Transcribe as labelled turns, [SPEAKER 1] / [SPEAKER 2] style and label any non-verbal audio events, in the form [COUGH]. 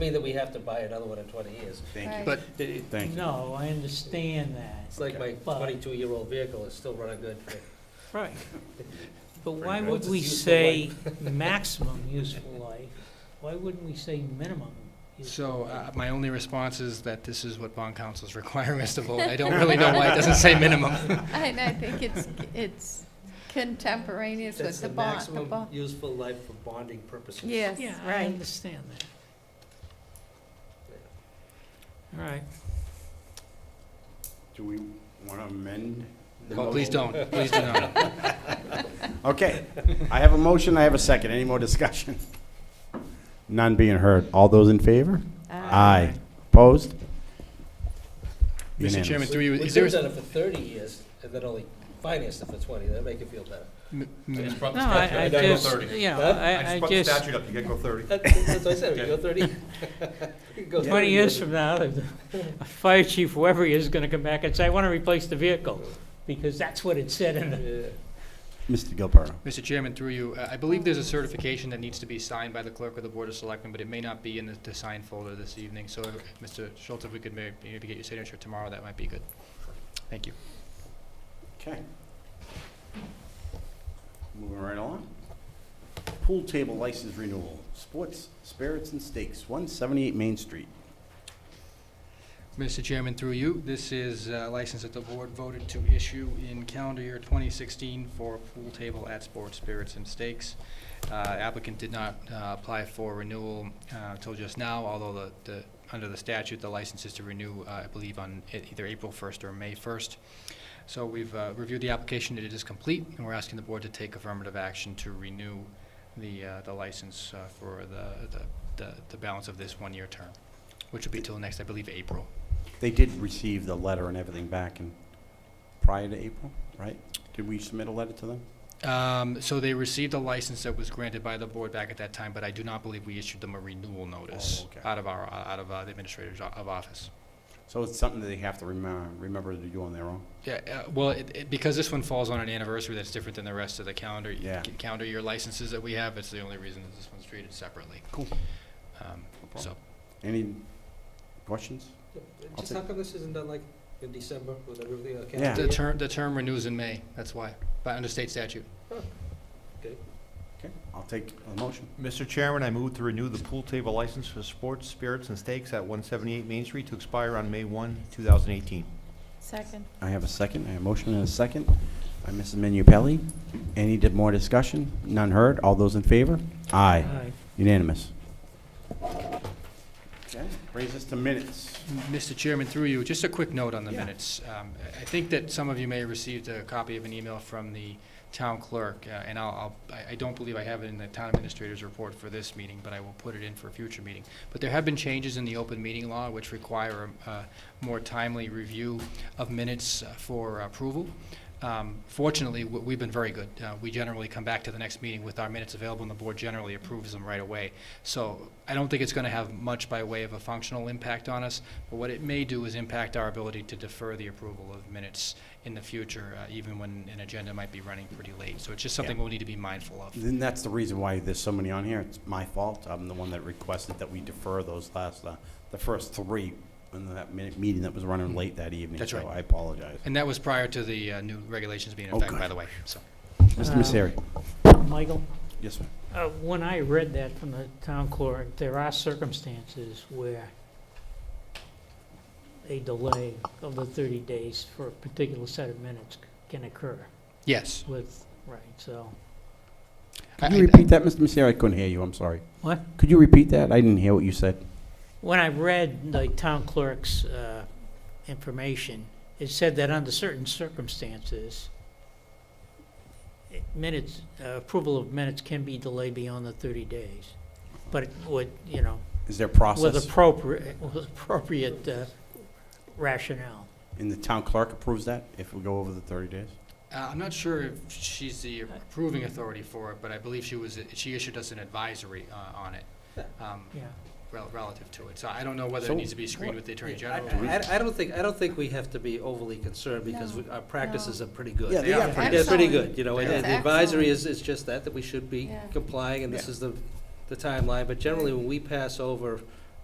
[SPEAKER 1] me that we have to buy another one in 20 years.
[SPEAKER 2] Thank you.
[SPEAKER 3] Right.
[SPEAKER 4] But
[SPEAKER 1] It-
[SPEAKER 2] Thank you.
[SPEAKER 5] No, I understand that.
[SPEAKER 1] It's like my
[SPEAKER 5] But-
[SPEAKER 1] 22-year-old vehicle is still running good.
[SPEAKER 4] [LAUGHS]
[SPEAKER 5] Right. But
[SPEAKER 2] Pretty
[SPEAKER 5] why
[SPEAKER 2] much.
[SPEAKER 5] would
[SPEAKER 1] What's
[SPEAKER 5] we
[SPEAKER 1] its useful
[SPEAKER 5] say [LAUGHS] maximum useful life? Why wouldn't we say minimum? useful
[SPEAKER 4] So
[SPEAKER 5] life?
[SPEAKER 4] uh, my only response is that this is what bond [LAUGHS] council's requiring us to vote. I don't really know why it doesn't say minimum.
[SPEAKER 3] And [LAUGHS] I think it's, it's contemporaneous
[SPEAKER 1] That's
[SPEAKER 3] with the
[SPEAKER 1] the
[SPEAKER 3] bond, the
[SPEAKER 1] maximum
[SPEAKER 3] bond.
[SPEAKER 1] useful life for bonding purposes.
[SPEAKER 3] Yes,
[SPEAKER 5] Yeah, I
[SPEAKER 3] right.
[SPEAKER 5] understand that. All right.
[SPEAKER 2] Do we want to amend? the
[SPEAKER 4] Well, please
[SPEAKER 2] motion?
[SPEAKER 4] don't, please do not.
[SPEAKER 2] Okay, I have a motion, I have a second. Any more discussion? [LAUGHS] None being heard. All those in favor?
[SPEAKER 3] Uh,
[SPEAKER 2] Aye. Opposed?
[SPEAKER 4] Mr. Chairman,
[SPEAKER 2] Unanimous.
[SPEAKER 4] through you,
[SPEAKER 1] We
[SPEAKER 4] is there,
[SPEAKER 1] could have done it for 30 years and then only financed it for 20. That'd make you feel better.
[SPEAKER 4] m-
[SPEAKER 6] I
[SPEAKER 4] m-
[SPEAKER 6] just brought the
[SPEAKER 5] No, I, I
[SPEAKER 6] statute, I gotta go
[SPEAKER 5] just,
[SPEAKER 6] thirty.
[SPEAKER 5] yeah,
[SPEAKER 1] Huh?
[SPEAKER 6] I
[SPEAKER 5] I,
[SPEAKER 6] just
[SPEAKER 5] I
[SPEAKER 6] brought the
[SPEAKER 5] just,
[SPEAKER 6] statute up, you gotta go thirty.
[SPEAKER 1] That- That's what I said, we go
[SPEAKER 5] [LAUGHS]
[SPEAKER 1] 30. we could go 30
[SPEAKER 5] twenty years from now, the the fire chief, whoever he is, is gonna come back and say, I wanna replace the vehicle, because that's what it said in the
[SPEAKER 1] Yeah.
[SPEAKER 2] Mr. Gilberto.
[SPEAKER 4] Mr. Chairman, through you, uh, I believe there's a certification that needs to be signed by the clerk of the Board of Selectmen, but it may not be in the, the sign folder this evening. So, if- Mr. Schultz, if we could may- maybe get your signature tomorrow, that might be good. Thank you.
[SPEAKER 2] Okay. Moving right on. Pool table license renewal, sports, spirits, and steaks, 178 Main Street.
[SPEAKER 4] Mr. Chairman, through you, this is a license that the board voted to issue in calendar year 2016 for a pool table at Sports Spirits and Steaks. Uh, Applicant did not uh, apply for renewal uh, till just now, although the, the- under the statute, the license is to renew, uh, I believe, on e- either April 1st or May 1st. So we've uh, reviewed the application, it is complete, and we're asking the board to take affirmative action to renew the, uh, the license uh, for the, the- the, the balance of this one-year term, which will be till next, I believe, April.
[SPEAKER 2] They did receive the letter and everything back in, prior to April, right? Did we submit a letter to them?
[SPEAKER 4] Um, so they received a license that was granted by the board back at that time, but I do not believe we issued them a renewal notice
[SPEAKER 2] Oh, okay.
[SPEAKER 4] out of our, out of uh, the administrator's o- of office.
[SPEAKER 2] So it's something that they have to remember, remember to do on their own?
[SPEAKER 4] Yeah, uh, well, it, it, because this one falls on an anniversary that's different than the rest of the calendar,
[SPEAKER 2] Yeah.
[SPEAKER 4] ca- calendar year licenses that we have, it's the only reason that this one's treated separately.
[SPEAKER 2] Cool.
[SPEAKER 4] Um,
[SPEAKER 2] problem.
[SPEAKER 4] so,
[SPEAKER 2] Any questions?
[SPEAKER 1] Just
[SPEAKER 2] take-
[SPEAKER 1] how come this isn't done like in December with everything on
[SPEAKER 2] Yeah.
[SPEAKER 1] calendar?
[SPEAKER 4] the term, the term renews in May, that's why, by, under state statute.
[SPEAKER 2] Okay, I'll take a motion.
[SPEAKER 6] Mr. Chairman, I move to renew the pool table license for sports, spirits, and steaks at one seventy-eight Main Street to expire on May one, two thousand eighteen.
[SPEAKER 3] Second.
[SPEAKER 2] I have a second, I have a motion and a second by Mrs. Minipelli. Any di- more discussion? None heard, all those in favor? Aye,
[SPEAKER 5] Aye.
[SPEAKER 2] unanimous. Okay, brings us to minutes.
[SPEAKER 4] Mr. Chairman, through you, just a quick note on the
[SPEAKER 2] Yeah.
[SPEAKER 4] minutes. Um, I I think that some of you may have received a copy of an email from the town clerk, uh, and I'll, I'll- I I don't believe I have it in the town administrator's report for this meeting, but I will put it in for a future meeting. But there have been changes in the open meeting law which require a uh, more timely review of minutes uh, for approval. Um, Fortunately, w- we've been very good. Uh, We generally come back to the next meeting with our minutes available, and the board generally approves them right away. So I don't think it's going to have much by way of a functional impact on us, but what it may do is impact our ability to defer the approval of minutes in the future, uh, even when an agenda might be running pretty late. So it's just something we'll need to be mindful of.
[SPEAKER 2] Then that's the reason why there's so many on here. It's my fault. I'm the one that requested that we defer those last, uh, the first three in that minute meeting that was running late that evening.
[SPEAKER 4] That's right.
[SPEAKER 2] So I apologize.
[SPEAKER 4] And that was prior to the uh, new regulations being in
[SPEAKER 2] Oh,
[SPEAKER 4] effect,
[SPEAKER 2] good.
[SPEAKER 4] by the way, so.
[SPEAKER 2] Mr.
[SPEAKER 5] Um,
[SPEAKER 2] Misery.
[SPEAKER 5] Michael?
[SPEAKER 2] Yes, sir.
[SPEAKER 5] Uh, When I read that from the town clerk, there are circumstances where a delay of the 30 days for a particular set of minutes can occur
[SPEAKER 4] Yes.
[SPEAKER 5] with, right, so.
[SPEAKER 2] Could
[SPEAKER 4] I-
[SPEAKER 2] you
[SPEAKER 4] I-
[SPEAKER 2] repeat that, Mr. Misery? I couldn't hear you. I'm sorry.
[SPEAKER 5] What?
[SPEAKER 2] Could you repeat that? I didn't hear what you said.
[SPEAKER 5] When I read the town clerk's uh, information, it said that under certain circumstances, it- minutes, uh, approval of minutes can be delayed beyond the 30 days. But it would, you know,
[SPEAKER 2] Is there
[SPEAKER 5] with
[SPEAKER 2] process?
[SPEAKER 5] appropriate, with appropriate uh, rationale.
[SPEAKER 2] And the town clerk approves that if we go over the 30 days?
[SPEAKER 4] Uh, I'm not sure if she's the approving authority for it, but I believe she was, she issued us an advisory uh, on it um,
[SPEAKER 5] Yeah.
[SPEAKER 4] rel- relative to it. So I don't know whether
[SPEAKER 2] So
[SPEAKER 4] it needs to be screened with the Attorney
[SPEAKER 1] Yeah, I-
[SPEAKER 4] General.
[SPEAKER 1] I, I- I don't think, I don't think we have to be overly concerned because
[SPEAKER 3] No,
[SPEAKER 1] we- our practices
[SPEAKER 3] no.
[SPEAKER 1] are pretty good.
[SPEAKER 2] Yeah, they are pretty
[SPEAKER 1] They're pretty
[SPEAKER 3] Excellent.
[SPEAKER 1] good, you know, and
[SPEAKER 2] They
[SPEAKER 3] are.
[SPEAKER 1] and the advisory
[SPEAKER 3] Excellent.
[SPEAKER 1] is, is just that, that we should be
[SPEAKER 3] Yeah.
[SPEAKER 1] complying, and this
[SPEAKER 2] Yeah.
[SPEAKER 1] is the, the timeline. But generally, when we pass over